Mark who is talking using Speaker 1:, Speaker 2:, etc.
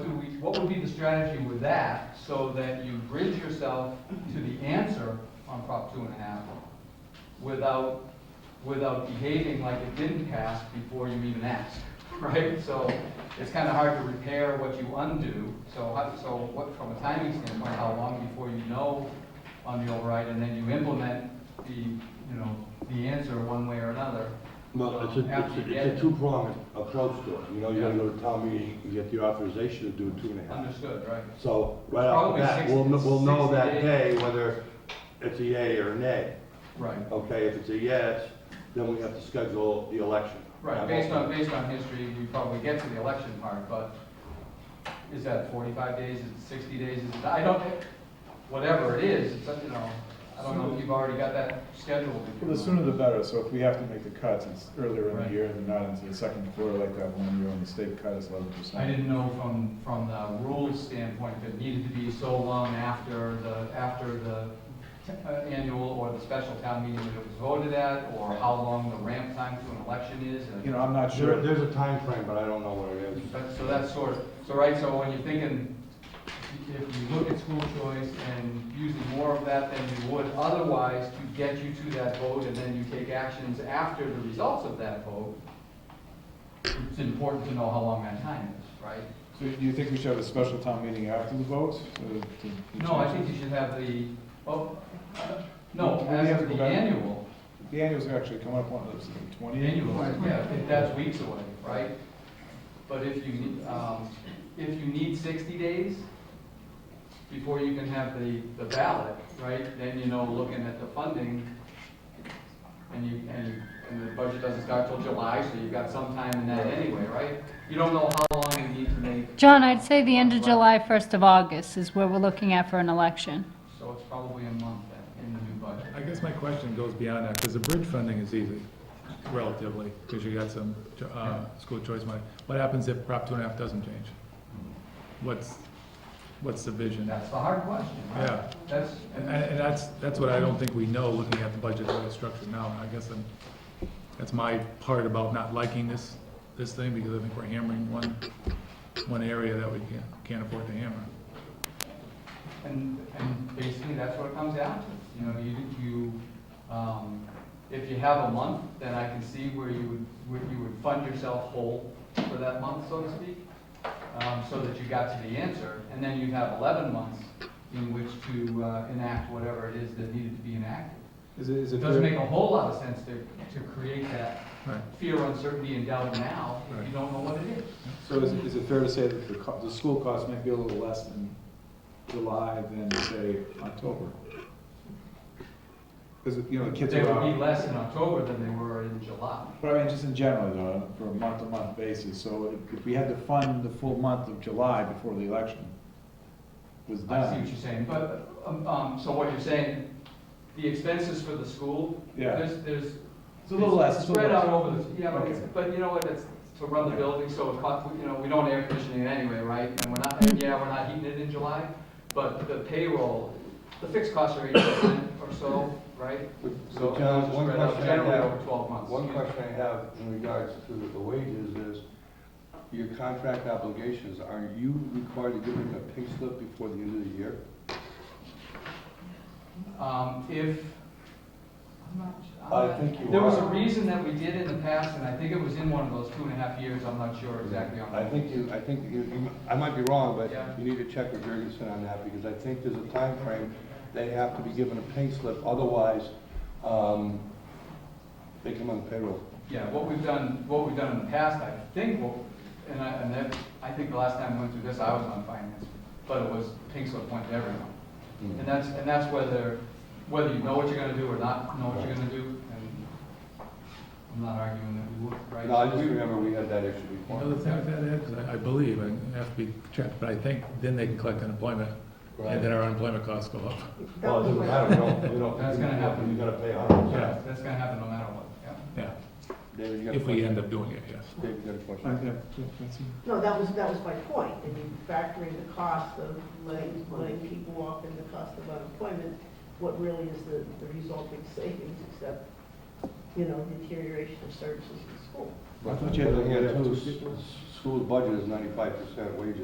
Speaker 1: what would be the strategy with that, so that you bridge yourself to the answer on Prop two and a half without, without behaving like it didn't pass before you even asked, right? So it's kind of hard to repair what you undo, so how, so what, from a timing standpoint, how long before you know on the override, and then you implement the, you know, the answer one way or another?
Speaker 2: Well, it's a, it's a- it's a two-pronged approach to it, you know, you gotta go to town meeting, you get the authorization to do two and a half.
Speaker 1: Understood, right?
Speaker 2: So, right off
Speaker 1: Probably
Speaker 2: the bat, we'll, kn- we'll know
Speaker 1: 60
Speaker 2: that
Speaker 1: days.
Speaker 2: day whether it's a yay or a nay.
Speaker 1: Right.
Speaker 2: Okay, if it's a yes, then we have to schedule the election.
Speaker 1: Right, based on, based on history, we probably get to the election part, but is that forty-five days, is it sixty days, is it, I don't, whatever it is, it's, you know, I don't know if you've already got that scheduled. if you
Speaker 3: Well, the
Speaker 1: want.
Speaker 3: sooner the better, so if we have to make the cuts, it's earlier in
Speaker 1: Right.
Speaker 3: the year and not into the second quarter like that one year when the state cut us eleven percent.
Speaker 1: I didn't know from, from the rules standpoint, if it needed to be so long after the, after the uh, annual or the special town meeting that it was voted at, or how long the ramp time to an election is, and
Speaker 3: You know, I'm not
Speaker 2: There,
Speaker 3: sure,
Speaker 2: there's a time frame, but I don't know what it is.
Speaker 1: That- So that's sort of, so right, so when you're thinking, if you look at school choice and using more of that than you would otherwise to get you to that vote, and then you take actions after the results of that vote, it's important to know how long that time is, right?
Speaker 3: so do you think we should have a special town meeting after the vote? uh, to- to
Speaker 1: No, I
Speaker 3: change
Speaker 1: think
Speaker 3: it?
Speaker 1: you should have the, oh, uh, no,
Speaker 3: We have
Speaker 1: as
Speaker 3: to
Speaker 1: of
Speaker 3: go
Speaker 1: the
Speaker 3: back.
Speaker 1: annual,
Speaker 3: The annuals are actually coming up on, it's the
Speaker 1: the
Speaker 3: twentieth.
Speaker 1: annual, yeah, if that's weeks away, right? But if you, need, um, if you need sixty days before you can have the, the ballot, right, then you know, looking at the funding, and you, and, you- and the budget doesn't start till July, so you've got some time in that anyway, right? You don't know how long you need to make,
Speaker 4: John, I'd say the end of July, 1st of August is where we're looking at for an election.
Speaker 1: so it's probably a month then, in the new budget.
Speaker 5: I guess my question goes beyond that, because the bridge funding is easy, relatively, because you got some, uh, school choice money. What happens if Prop two and a half doesn't change? What's, what's the vision?
Speaker 1: That's the hard question, right?
Speaker 5: Yeah.
Speaker 1: That's,
Speaker 5: And, and that's, that's what I don't think we know, looking at the budget that is structured now, and I guess I'm, that's my part about not liking this, this thing, because I think we're hammering one, one area that we can't, can't afford to hammer.
Speaker 1: And, and basically, that's what it comes down to. You know, you, you, um, if you have a month, then I can see where you would, where you would fund yourself whole for that month, so to speak, um, so that you got to the answer. And then you have eleven months in which to, uh, enact whatever it is that needed to be enacted.
Speaker 3: Is it, is
Speaker 1: It
Speaker 3: it
Speaker 1: doesn't make
Speaker 3: fair,
Speaker 1: a whole lot of sense to, to create that
Speaker 5: Right.
Speaker 1: fear, uncertainty, and doubt now if you
Speaker 5: Right.
Speaker 1: don't know what it is.
Speaker 3: so is it, is it fair to say that the, co- the school cost might be a little less in July than, say, October? Because, you know, the kids
Speaker 1: They
Speaker 3: are
Speaker 1: would be
Speaker 3: out,
Speaker 1: less in October than they were in July.
Speaker 3: but I mean, just in general, though, for a month-to-month basis, so if- if we had to fund the full month of July before the election was done.
Speaker 1: I see what you're saying, but, um, um, so what you're saying, the expenses for the school,
Speaker 3: Yeah,
Speaker 1: there's, there's.
Speaker 3: it's a little less, it's a little
Speaker 1: Spread out
Speaker 3: less.
Speaker 1: over the, yeah, but it's,
Speaker 3: Okay.
Speaker 1: but you know what, it's to run the building, so it costs, you know, we don't air conditioning it anyway, right? And we're not, and yeah, we're not heating it in July, but the payroll, the fixed costs are eight percent or so, right? So
Speaker 2: John,
Speaker 1: it's
Speaker 2: one
Speaker 1: spread out
Speaker 2: question I
Speaker 1: generally
Speaker 2: have-
Speaker 1: over twelve months.
Speaker 2: One question I have in regards to the wages is, your contract obligations, are you required to give them a pay slip before the end of the year?
Speaker 1: Um, if, I'm not, I'm
Speaker 2: I
Speaker 1: not-
Speaker 2: think you
Speaker 1: There was a
Speaker 2: are.
Speaker 1: reason that we did in the past, and I think it was in one of those two and a half years, I'm not sure exactly on
Speaker 2: I
Speaker 1: that.
Speaker 2: think you, I think you, you- I might be wrong, but
Speaker 1: Yeah.
Speaker 2: you need to check with Jurgensen on that, because I think there's a time frame. They have to be given a pay slip, otherwise, um, they come on the payroll.
Speaker 1: Yeah, what we've done, what we've done in the past, I think, what- and I, and that, I think the last time we went through this, I was on finance, but it was pink slip went to everyone. And that's, and that's whether, whether you know what you're gonna do or not know what you're gonna do, and I'm not arguing that we would, right?
Speaker 2: No, I just remember we had that issue
Speaker 5: Another
Speaker 2: before.
Speaker 5: thing with that, Ed, 'cause I- I believe, and I have to be checked, but I think then they can collect unemployment, and then our unemployment costs go up.
Speaker 2: Well, it doesn't matter, we don't, we don't.
Speaker 1: That's gonna happen.
Speaker 2: You gotta pay a hundred
Speaker 1: Yeah,
Speaker 2: percent.
Speaker 1: that's gonna happen no matter what, yeah.
Speaker 5: Yeah,
Speaker 2: David, you got a
Speaker 5: if we
Speaker 2: question?
Speaker 5: end up doing it, yes.
Speaker 2: David, you got a
Speaker 3: I-
Speaker 2: question?
Speaker 3: I- yeah, that's it.
Speaker 6: No, that was, that was my point, and you factor in the cost of letting, letting people off and the cost of unemployment, what really is the, the resulting savings except, you know, deterioration of services in school?
Speaker 3: I thought you had-
Speaker 2: Yeah, two s- School budget is ninety-five percent wages.